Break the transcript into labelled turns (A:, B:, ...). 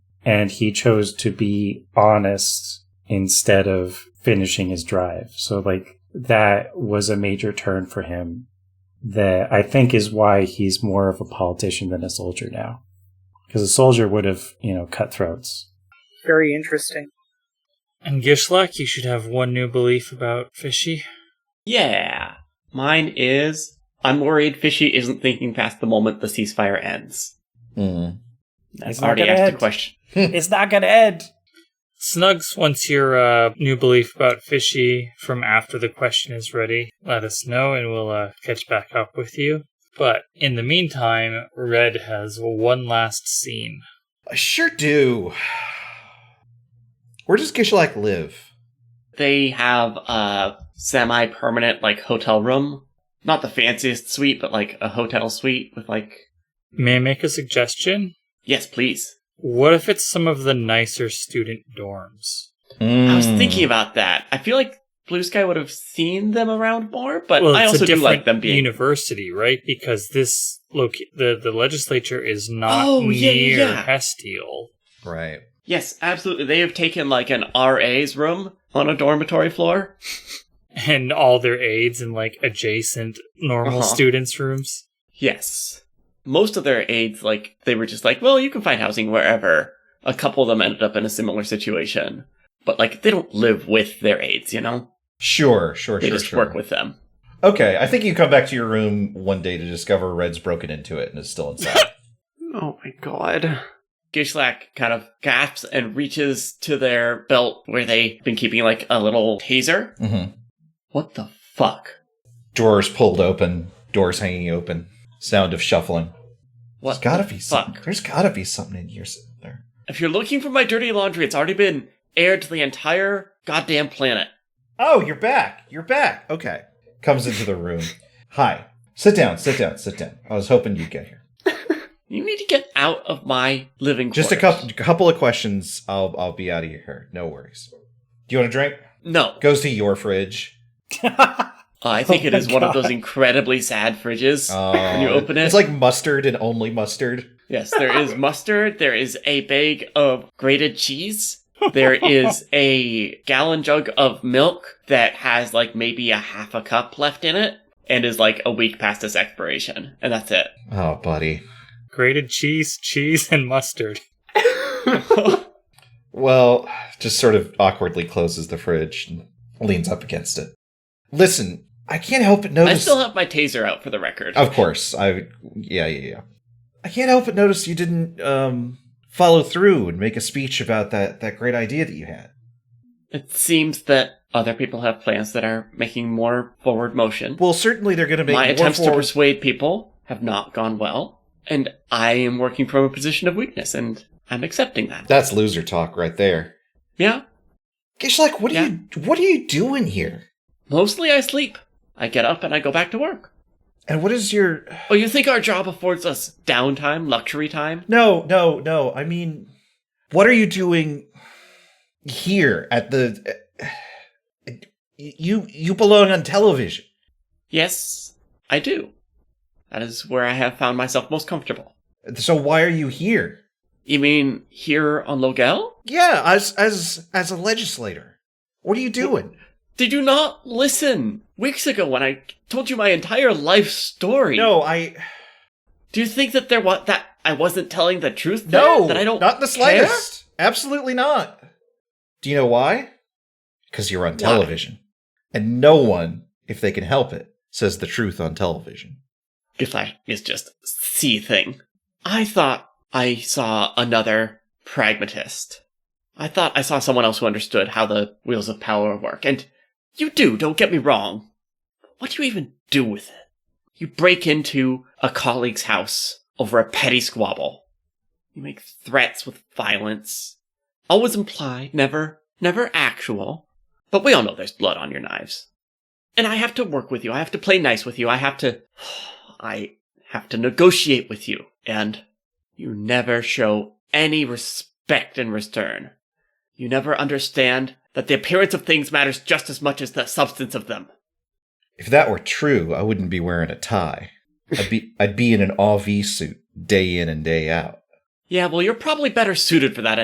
A: and he chose to be honest instead of finishing his drive. So like that was a major turn for him that I think is why he's more of a politician than a soldier now. Because a soldier would have, you know, cut throats.
B: Very interesting.
C: And Gishlak, you should have one new belief about Fishy.
D: Yeah. Mine is I'm worried Fishy isn't thinking past the moment the ceasefire ends.
E: Mm.
D: That's
A: It's not
D: already
A: gonna
D: asked
A: end.
D: a question.
A: it's not gonna end.
C: Snugs, once your uh, new belief about Fishy from after the question is ready, let us know and we'll uh, catch back up with you. But in the meantime, Red has one last scene.
E: I sure do. Where does Gishalak live?
D: They have a semi permanent like hotel room. Not the fanciest suite, but like a hotel suite with like
C: May I make a suggestion?
D: Yes, please.
C: What if it's some of the nicer student dorms?
D: I
C: Hmm.
D: was thinking about that. I feel like Blue Sky would have seen them around more, but
C: well,
D: I
C: it's a
D: also do
C: different
D: like them being
C: university, right? Because this loca- the the legislature is not
D: Oh, yeah,
C: near
D: yeah, yeah.
C: Hestiel.
E: Right.
D: Yes, absolutely. They have taken like an RA's room on a dormitory floor.
C: and all their aides in like adjacent normal
D: Uh-huh.
C: students' rooms.
D: Yes. Most of their aides, like, they were just like, well, you can find housing wherever. A couple of them ended up in a similar situation. But, like, they don't live with their aides, you know?
E: Sure, sure,
D: They
E: sure.
D: just
E: sure.
D: work with them.
E: Okay, I think you come back to your room one day to discover Red's broken into it and is still inside.
D: Oh my god. Gishlak kind of gasps and reaches to their belt where they've been keeping, like, a little taser.
E: hmm
D: What the fuck?
E: Drawers pulled open, doors hanging open, sound of shuffling.
D: What?
E: There's gotta
D: the
E: be
D: fuck?
E: something. There's gotta be something in here somewhere.
D: If you're looking for my dirty laundry, it's already been aired to the entire goddamn planet.
E: Oh, you're back. You're back. Okay. Comes into the room. Hi. Sit down, sit down, sit down. I was hoping you'd get here.
D: You need to get out of my living
E: Just a
D: quarters.
E: couple couple of questions. I'll I'll be out of here. No worries. Do you want a drink?
D: No.
E: Goes to your fridge.
D: I think
A: Oh
D: it
A: my
D: is one of
A: God.
D: those incredibly sad fridges. when you
E: Oh,
D: open it,
E: It's like mustard and only mustard.
D: yes, there is mustard, there is a bag of grated cheese, there is a gallon jug of milk that has like maybe a half a cup left in it and is like a week past its expiration, and that's it.
E: Oh, buddy.
C: Grated cheese, cheese, and mustard.
E: Well, just sort of awkwardly closes the fridge and leans up against it. Listen, I can't help but
D: I
E: notice.
D: still have my taser out for the record.
A: Oh.
E: of course, I. Yeah, yeah, yeah. I can't help but notice you didn't um, follow through and make a speech about that that great idea that you had.
D: It seems that other people have plans that are making more forward motion.
E: Well, certainly they're going to make
D: my
E: more
D: attempts to
E: forward-
D: persuade people have not gone well, and I am working from a position of weakness, and I'm accepting that.
E: That's loser talk right there.
D: yeah,
E: Gishlak, what are you what are you doing here?
D: mostly I sleep. I get up and I go back to work.
E: And what is your
D: Oh, you think our job affords us downtime, luxury time?
E: No, no, no. I mean, what are you doing here at the? You you belong on television.
D: Yes, I do. That is where I have found myself most comfortable.
E: So why are you here?
D: You mean here on Logel?
E: Yeah, as as as a legislator, what are you doing?
D: Did you not listen weeks ago when I told you my entire life story?
E: No, I
D: Do you think that there was that I wasn't telling the truth? there?
E: no,
D: that I don't
E: not in the
D: care?
E: slightest. Absolutely not. Do you know why? Because you're on
D: Why?
E: television, and no one, if they can help it, says the truth on television.
D: Giflash is just seething. I thought I saw another pragmatist. I thought I saw someone else who understood how the wheels of power work, and you do, don't get me wrong. What do you even do with it? You break into a colleague's house over a petty squabble. You make threats with violence. Always implied, never, never actual. But we all know there's blood on your knives. And I have to work with you. I have to play nice with you. I have to, I have to negotiate with you. And you never show any respect in return. You never understand that the appearance of things matters just as much as the substance of them.
E: If that were true, I wouldn't be wearing a tie. I'd be I'd be in an RV suit day in and day out.
D: Yeah, well, you're probably better suited for that